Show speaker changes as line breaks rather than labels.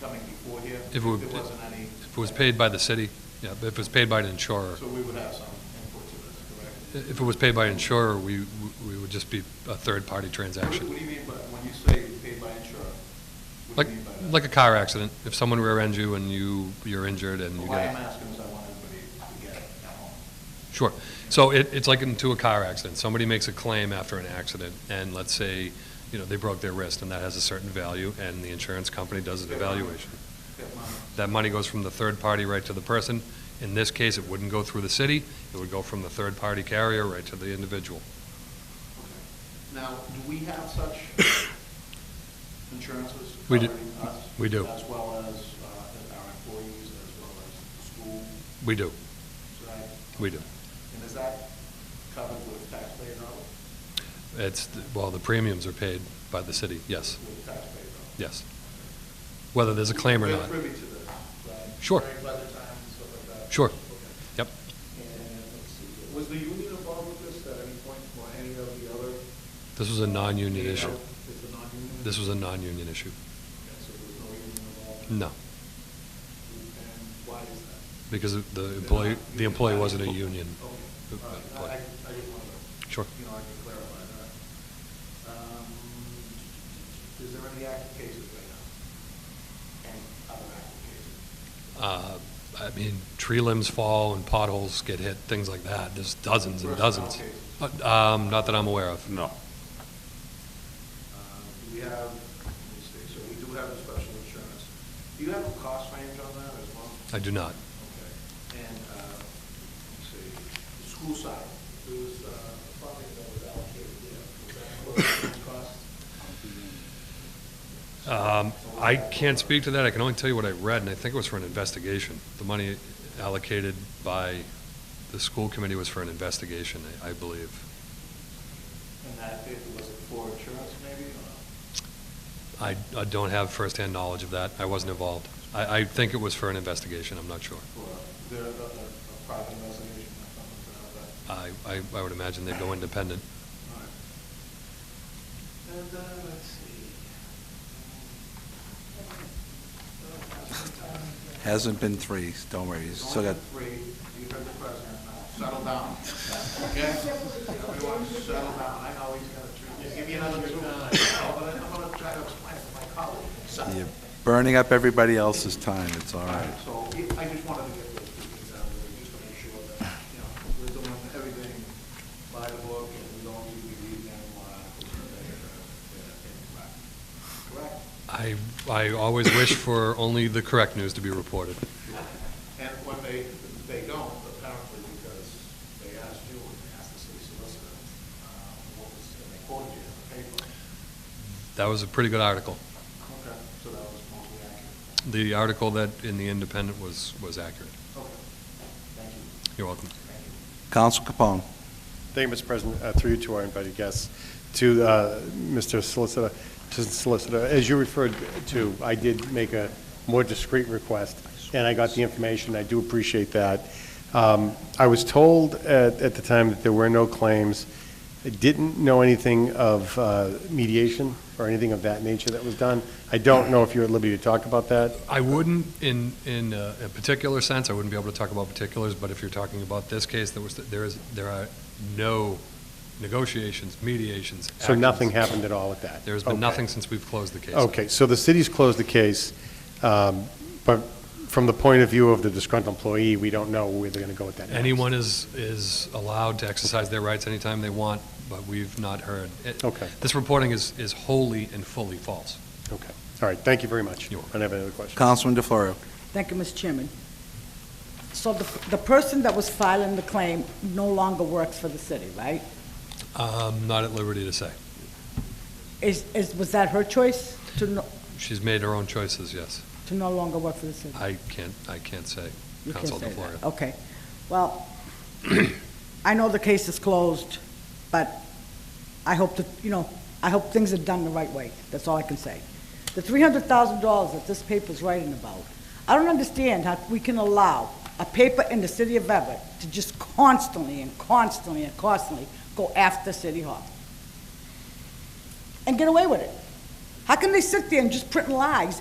coming before here, if
If it
there
were-
wasn't any.
If it was paid by the city, yeah, but if it was paid by an insurer,
So we would have some input to this, correct?
if it was paid by an insurer, we, we would just be a third-party
What do
transaction.
you mean by, when you say paid by insurer? what
Like,
do you mean by that?
like a car accident, if someone rear-ends you and you, you're injured and you
Why I'm
get.
asking is I want everybody to get it at home.
Sure. So it, it's like into a car accident. Somebody makes a claim after an accident and let's say, you know, they broke their wrist and that has a certain value and the insurance company does an evaluation.
Get mine.
That money goes from the third party right to the person. In this case, it wouldn't go through the city. It would go from the third-party carrier right to the individual.
Okay. Now, do we have such insurances
We do.
covering us?
We do.
As well as uh, our employees, as well as the school,
We do.
right?
We do.
And is that covered with taxpayer dollars?
It's, well, the premiums are paid by the city, yes,
With taxpayer dollars?
yes. Whether there's a claim or not.
We're privy to this, right?
Sure.
During budget time and stuff like that?
Sure.
Okay.
Yep.
And let's see, was the union involved with this at any point, or any of the other?
This was a non-union
Yeah.
issue.
It's a non-union?
This was a non-union issue.
Okay, so there was no union involved?
No,
And why is that?
because of the employee, the employee wasn't a union.
Okay, all right, I, I I just wanted to.
Sure.
You know, I can clarify that. Um, Is there any active cases right now? Any other active cases?
Uh, I mean, tree limbs fall and potholes get hit, things like that. There's dozens and
Personnel
dozens.
cases.
Uh, Um, not that I'm aware of.
No.
Uh, Do we have, let me see, so we do have a special insurance. Do you have a cost range on that as well?
I do not.
Okay, and, uh, let's see, the school side, there was uh, funding that was allocated there. Was that for the cost?
Um, I can't speak to that. I can only tell you what I read, and I think it was for an investigation. The money allocated by the school committee was for an investigation, I I believe.
And that, it was it for insurance maybe, or?
I I don't have firsthand knowledge of that. I wasn't involved. I I think it was for an investigation, I'm not sure.
For, there, a, a a private investigation or something to that. effect.
I I I would imagine they'd go independent.
All right. And, uh, let's see.
Hasn't been three, don't worry, you
It's
still
only
got,
been three, you heard the president, now settle down, okay? Everyone, settle down, I know he's gonna treat, give you another two minutes, but I'm gonna try to explain it to my colleague. Settle.
you're burning up everybody else's time, it's all
All
right.
right, so I- I just wanted to get those two things out of the way, just to make sure that, you know, we're doing everything by the book, and we don't need to be reading uh, any more articles or things Correct?
I I always wish for only the correct news to be reported.
And when they, they don't, apparently because they asked you, and they asked the city solicitor, uh, what was, and they quoted you in the paper.
That was a pretty good article.
Okay. So that was mostly accurate.
The article that in The Independent was was accurate.
Okay. Thank you.
You're welcome.
Thank you.
Counsel Capone,
Thank you, Mr. President, Uh, through you to our invited guests, to uh, Mr. Solicitor, to Solicitor, as you referred to, I did make a more discreet request, and I got the information, I do appreciate that. Um, I was told at, at the time that there were no claims, I didn't know anything of uh, mediation or anything of that nature that was done. I don't know if you're at liberty to talk about that.
I wouldn't, in, in a a particular sense, I wouldn't be able to talk about particulars, but if you're talking about this case, there was, there is, there are no negotiations, mediations.
So nothing
actions.
happened at all with that?
There's been
Okay.
nothing since we've closed the case.
Okay, so the city's closed the case, um, but from the point of view of the disgruntled employee, we don't know where they're going to go with that. next.
Anyone is, is allowed to exercise their rights anytime they want, but we've not heard. it-
Okay.
This reporting is, is wholly and fully false.
Okay, all right, thank you very much.
You're welcome.
I don't have any other questions.
Councilman DeFlorio.
Thank you, Mr. Chairman. So the, the person that was filing the claim no longer works for the city, right?
I'm not at liberty to say.
Is, is, was that her choice to no,
She's made her own choices, yes.
to no longer work for the city?
I can't, I can't say.
You can't
Counsel
say
DeFlorio.
that. Okay. Well, I know the case is closed, but I hope that, you know, I hope things are done the right way. That's all I can say. The three hundred thousand dollars that this paper's writing about, I don't understand how we can allow a paper in the city of Everett to just constantly and constantly and constantly go after City Hall and get away with it. How can they sit there and just print lies